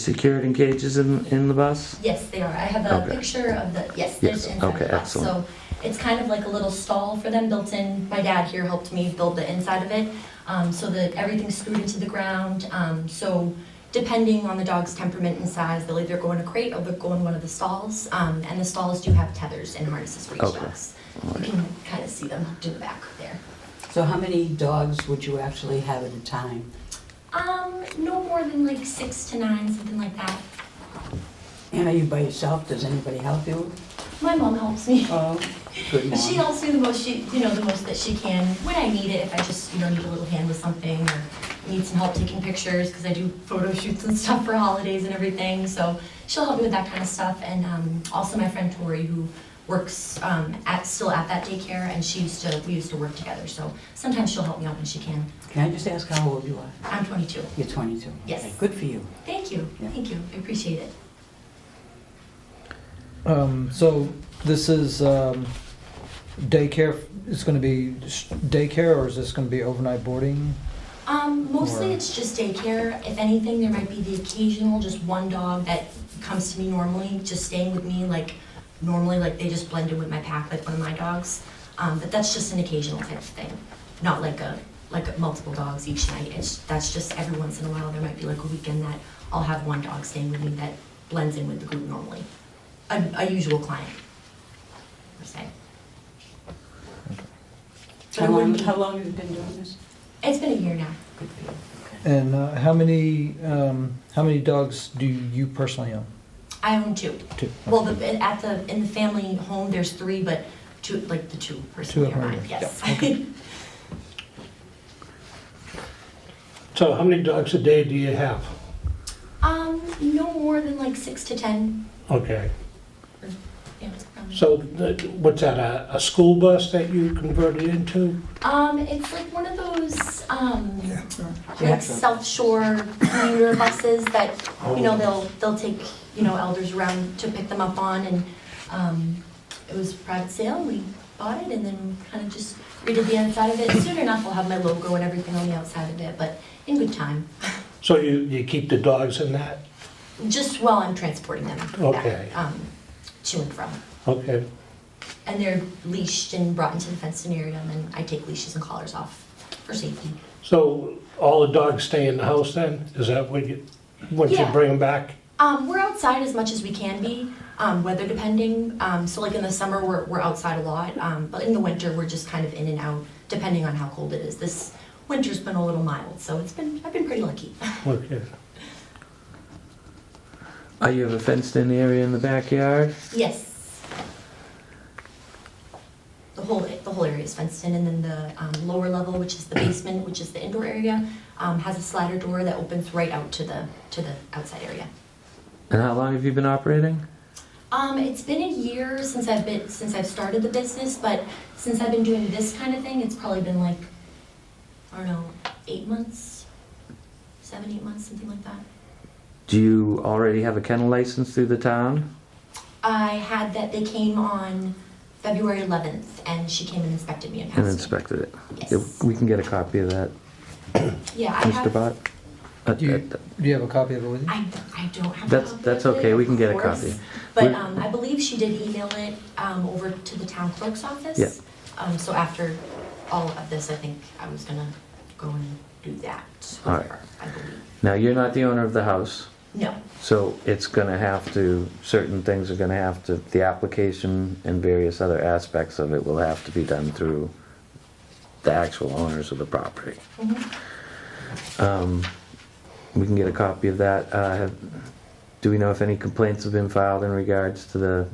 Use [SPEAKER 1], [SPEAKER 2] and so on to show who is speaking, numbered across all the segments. [SPEAKER 1] Secured in cages in, in the bus?
[SPEAKER 2] Yes, they are. I have a
[SPEAKER 1] Okay.
[SPEAKER 2] picture of the, yes,
[SPEAKER 1] Yes,
[SPEAKER 2] there's inside
[SPEAKER 1] okay,
[SPEAKER 2] the box.
[SPEAKER 1] excellent.
[SPEAKER 2] So it's kind of like a little stall for them built in. My dad here helped me build the inside of it, um, so that everything's screwed into the ground. Um, so depending on the dog's temperament and size, they'll either go in a crate or they'll go in one of the stalls. Um, and the stalls do have tethers and harnesses for each
[SPEAKER 1] Okay.
[SPEAKER 2] dogs.
[SPEAKER 1] All
[SPEAKER 2] You
[SPEAKER 1] right.
[SPEAKER 2] can kind of see them hooked in the back there.
[SPEAKER 3] So how many dogs would you actually have at a time?
[SPEAKER 2] Um, no more than like six to nine, something like that.
[SPEAKER 3] And are you by yourself? Does anybody help you?
[SPEAKER 2] My mom helps me.
[SPEAKER 3] Oh. Good
[SPEAKER 2] She
[SPEAKER 3] mom.
[SPEAKER 2] helps me the most, she, you know, the most that she can when I need it, if I just, you know, need a little hand with something or need some help taking pictures, because I do photo shoots and stuff for holidays and everything, so she'll help me with that kind of stuff. And um, also my friend Tori, who works um, at, still at that daycare, and she used to, we used to work together, so sometimes she'll help me out when she can.
[SPEAKER 3] Can I just ask how old you are?
[SPEAKER 2] I'm 22.
[SPEAKER 3] You're 22.
[SPEAKER 2] Yes.
[SPEAKER 3] Okay, Good for you.
[SPEAKER 2] Thank you,
[SPEAKER 3] Yeah.
[SPEAKER 2] thank you, I appreciate it.
[SPEAKER 4] Um, so this is, um, daycare, it's gonna be s- daycare or is this gonna be overnight boarding?
[SPEAKER 2] Um, mostly
[SPEAKER 4] Or-
[SPEAKER 2] it's just daycare. If anything, there might be the occasional, just one dog that comes to me normally, just staying with me, like, normally, like, they just blend in with my pack, like one of my dogs. Um, but that's just an occasional type of thing, not like a, like multiple dogs each night. It's, that's just every once in a while, there might be like a weekend that I'll have one dog staying with me that blends in with the group normally. A, a usual client, per se. But it
[SPEAKER 3] How long,
[SPEAKER 2] wouldn't be-
[SPEAKER 3] how long have you been doing this?
[SPEAKER 2] It's been a year now.
[SPEAKER 3] Good for you. Okay.
[SPEAKER 4] And, uh, how many, um, how many dogs do you personally own?
[SPEAKER 2] I own two.
[SPEAKER 4] Two.
[SPEAKER 2] Well, the, at the, in the family home, there's three, but two, like the two personally
[SPEAKER 4] Two
[SPEAKER 2] are
[SPEAKER 4] of
[SPEAKER 2] mine,
[SPEAKER 4] hers,
[SPEAKER 2] yes.
[SPEAKER 5] So how many dogs a day do you have?
[SPEAKER 2] Um, no more than like six to ten.
[SPEAKER 5] Okay,
[SPEAKER 2] Yeah, it's probably-
[SPEAKER 5] so th- what's that, a, a school bus that you converted into?
[SPEAKER 2] Um, it's like one of those, um,
[SPEAKER 3] Yeah.
[SPEAKER 2] like South Shore commuter buses that, you know,
[SPEAKER 5] Oh.
[SPEAKER 2] they'll, they'll take, you know, elders around to pick them up on and, um, it was private sale, we bought it and then kind of just redid the inside of it. Soon enough, we'll have my logo and everything on the outside of it, but in good time.
[SPEAKER 5] So you, you keep the dogs in that?
[SPEAKER 2] Just while I'm transporting them back,
[SPEAKER 5] Okay.
[SPEAKER 2] um, to and from.
[SPEAKER 5] Okay,
[SPEAKER 2] And they're leashed and brought into the fenced in area, and then I take leashes and collars off for safety.
[SPEAKER 5] so all the dogs stay in the house then? Is that what you, once you
[SPEAKER 2] Yeah.
[SPEAKER 5] bring them back?
[SPEAKER 2] Um, we're outside as much as we can be, um, weather depending. Um, so, like in the summer, we're, we're outside a lot, um, but in the winter, we're just kind of in and out depending on how cold it is. This winter's been a little mild, so it's been I've been pretty lucky.
[SPEAKER 5] Okay,
[SPEAKER 1] Oh, you have a fenced-in area in the backyard?
[SPEAKER 2] Yes. The whole, the whole area is fenced in, and then the um, lower level, which is the basement, which is the indoor area, um, has a slider door that opens right out to the, to the outside area.
[SPEAKER 1] And how long have you been operating?
[SPEAKER 2] Um, it's been a year since I've been, since I've started the business, but since I've been doing this kind of thing, it's probably been like, I don't know, eight months? Seven, eight months, something like that.
[SPEAKER 1] Do you already have a kennel license through the town?
[SPEAKER 2] I had that, they came on February 11th, and she came and inspected me and
[SPEAKER 1] And
[SPEAKER 2] passed me.
[SPEAKER 1] inspected it?
[SPEAKER 2] Yes.
[SPEAKER 1] If We can get a copy of that,
[SPEAKER 2] Yeah, I
[SPEAKER 1] Mr.
[SPEAKER 2] have,
[SPEAKER 1] Bott? Uh,
[SPEAKER 4] Do you,
[SPEAKER 1] that-
[SPEAKER 4] do you have a copy of it with you?
[SPEAKER 2] I, I don't have. a
[SPEAKER 1] That's,
[SPEAKER 2] copy
[SPEAKER 1] that's
[SPEAKER 2] of it,
[SPEAKER 1] okay, we can
[SPEAKER 2] of
[SPEAKER 1] get a
[SPEAKER 2] course.
[SPEAKER 1] copy.
[SPEAKER 2] But
[SPEAKER 1] We-
[SPEAKER 2] um, I believe she did email it um, over to the town clerk's office.
[SPEAKER 1] Yeah.
[SPEAKER 2] Um, so after all of this, I think I was gonna go and do that with
[SPEAKER 1] All right.
[SPEAKER 2] her, I believe.
[SPEAKER 1] Now, you're not the owner of the house,
[SPEAKER 2] No,
[SPEAKER 1] so it's gonna have to, certain things are gonna have to, the application and various other aspects of it will have to be done through the actual owners of the property.
[SPEAKER 2] Mhm.
[SPEAKER 1] Um, We can get a copy of that. Uh, have- Do we know if any complaints have been filed in regards to the,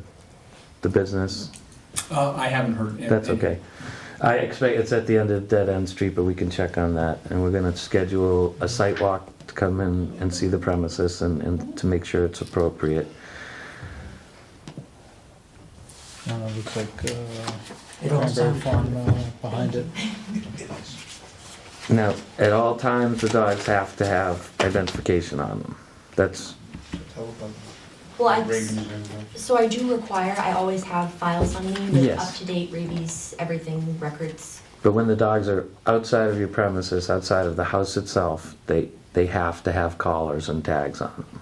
[SPEAKER 1] the business?
[SPEAKER 6] Uh, I haven't heard. any-
[SPEAKER 1] That's okay. I expect it's at the end of Dead End Street, but we can check on that. And we're gonna schedule a site walk to come in and see the premises and, and to make sure it's appropriate.
[SPEAKER 4] Uh, looks like, uh,
[SPEAKER 3] It all
[SPEAKER 4] Cranberry
[SPEAKER 3] sounds
[SPEAKER 4] Farm,
[SPEAKER 3] wonderful.
[SPEAKER 4] uh, behind it.
[SPEAKER 1] Now, at all times, the dogs have to have identification on them. That's,
[SPEAKER 2] well, I, so I do require, I always have files on me with
[SPEAKER 1] Yes.
[SPEAKER 2] up-to-date rabies, everything, records.
[SPEAKER 1] but when the dogs are outside of your premises, outside of the house itself, they, they have to have collars and tags on them.